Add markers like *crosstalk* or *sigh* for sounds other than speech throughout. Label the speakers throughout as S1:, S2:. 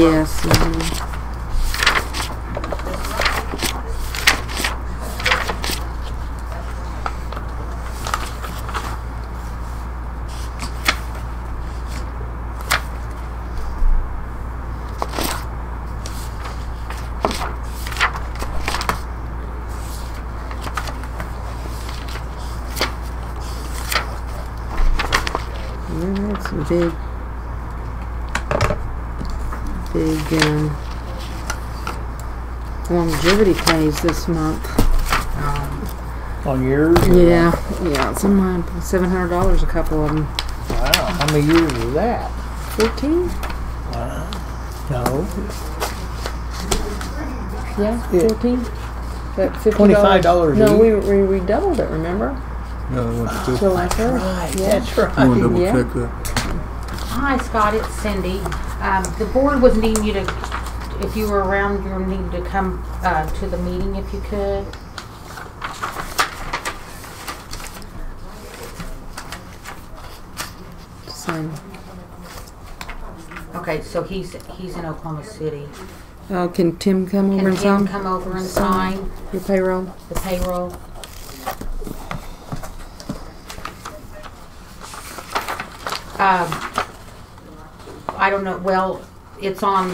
S1: Yes. mhm. Yeah, that's a big, big, um, longevity pays this month.
S2: On yours? or-
S1: Yeah, yeah, it's in mine, seven hundred dollars a couple of them.
S2: Wow, how many years is that?
S1: Fourteen?
S2: No,
S1: Yeah,
S2: Yeah.
S1: fourteen. That fifty
S2: $25
S1: No,
S2: each.
S1: we, we we doubled it, remember?
S3: Yeah, I want to,
S1: The last year?
S2: right,
S1: Yeah.
S2: that's
S3: I want to
S2: right.
S3: double
S1: Yeah.
S3: check that.
S4: Hi Scott, it's Cindy. Um, the board was needing you to, if you were around, you were needing to come, uh, to the meeting if you could.
S1: Same.
S4: Okay, so he's, he's in Oklahoma City.
S1: Oh, can Tim come over
S4: Can
S1: and
S4: Tim
S1: sign
S4: come over and
S1: Sign.
S4: sign
S1: your payroll?
S4: the payroll? Um, I don't know, well, it's on,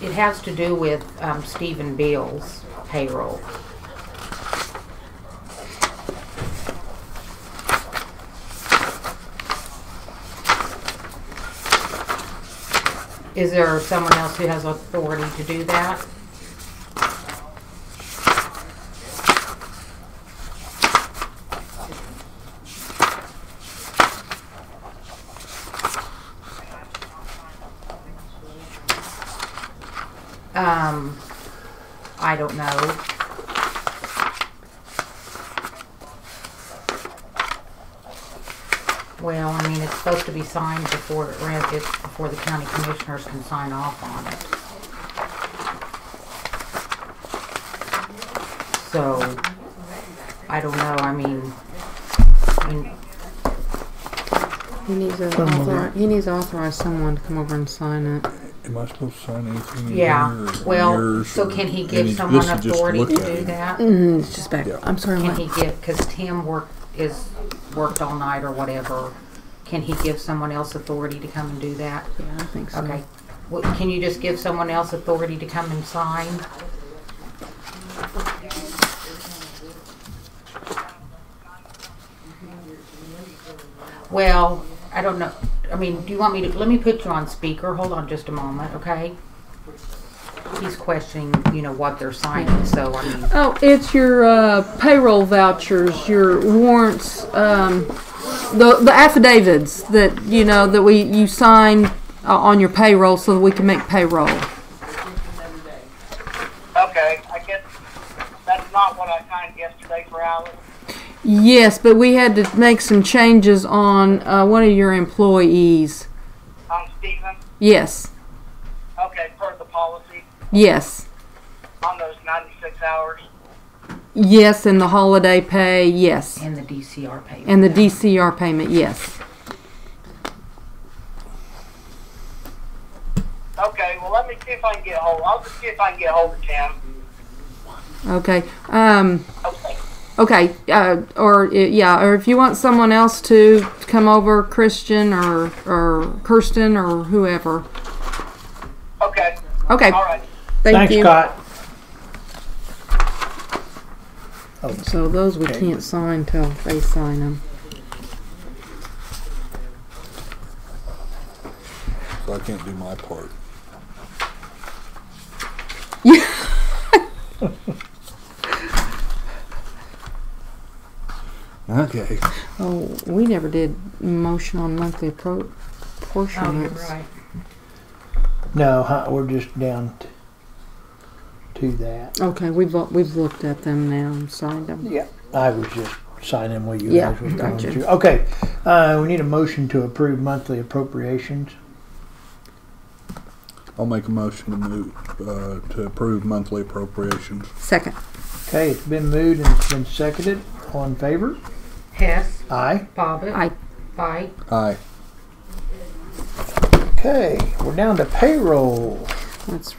S4: it has to do with, um, Stephen Beal's payroll. Is there someone else who has authority to do that? Um, I don't know. Well, I mean, it's supposed to be signed before it ran, it's before the county commissioners can sign off on it. So, I don't know, I mean, I mean,
S1: He needs a
S2: Come over.
S1: author, he needs to authorize someone to come over and sign it.
S3: Am I supposed to sign anything?
S4: yeah,
S3: here or
S4: well,
S3: yours
S4: so
S3: or
S4: can he
S3: any-
S4: give
S3: this
S4: someone
S3: is just
S4: authority
S3: look
S4: to
S3: at
S4: do
S3: it.
S4: that?
S1: Mm, it's just back,
S3: Yeah.
S1: I'm sorry,
S4: Can he
S1: what?
S4: give, because Tim work, is, worked all night or whatever, can he give someone else authority to come and do that?
S1: Yeah, I think so.
S4: Okay, Well, can you just give someone else authority to come and sign? Well, I don't know, I mean, do you want me to, let me put you on speaker, hold on just a moment, okay? He's questioning, you know, what they're signing, so I mean.
S1: Oh, it's your uh, payroll vouchers, your warrants, um, the the affidavits that you know that we you sign uh, on your payroll so that we can make payroll.
S5: Okay, I guess that's not what I signed yesterday for Alan.
S1: Yes, but we had to make some changes on uh, one of your employees.
S5: I'm Steven.
S1: Yes,
S5: Okay, per the policy,
S1: yes,
S5: on those 96 hours.
S1: yes, and the holiday pay, yes,
S4: And the DCR payment.
S1: and the DCR payment, yes.
S5: Okay, well, let me see if I can get hold. I'll just see if I can get hold of Tim.
S1: Okay. Um,
S5: Okay.
S1: okay. Uh, or uh, yeah, or if you want someone else to come over, Christian or or Kirsten or whoever.
S5: Okay.
S1: Okay.
S5: All right.
S1: Thank
S2: Thanks,
S1: you.
S2: Scott.
S1: So those we
S2: Okay.
S1: can't sign till they sign them.
S3: So I can't do my
S4: *laughs*
S3: part. Okay.
S1: Oh, we never did motion on monthly pro-
S4: Oh, you're
S1: portions.
S4: right.
S2: No, huh, we're just down t- to that.
S1: Okay, we've lo- we've looked at them now and signed them.
S2: Yeah. I was just signing what you
S1: Yeah,
S2: guys were going
S1: gotcha.
S2: to. Okay, uh, we need a motion to approve monthly appropriations.
S3: I'll make a motion to move, uh, to approve monthly appropriations.
S1: Second.
S2: Okay, it's been moved and it's been seconded. All in favor?
S4: Hess,
S2: Aye.
S4: Bobbit.
S1: Aye.
S4: Aye.
S3: Aye.
S2: Okay, we're down to payroll.
S1: That's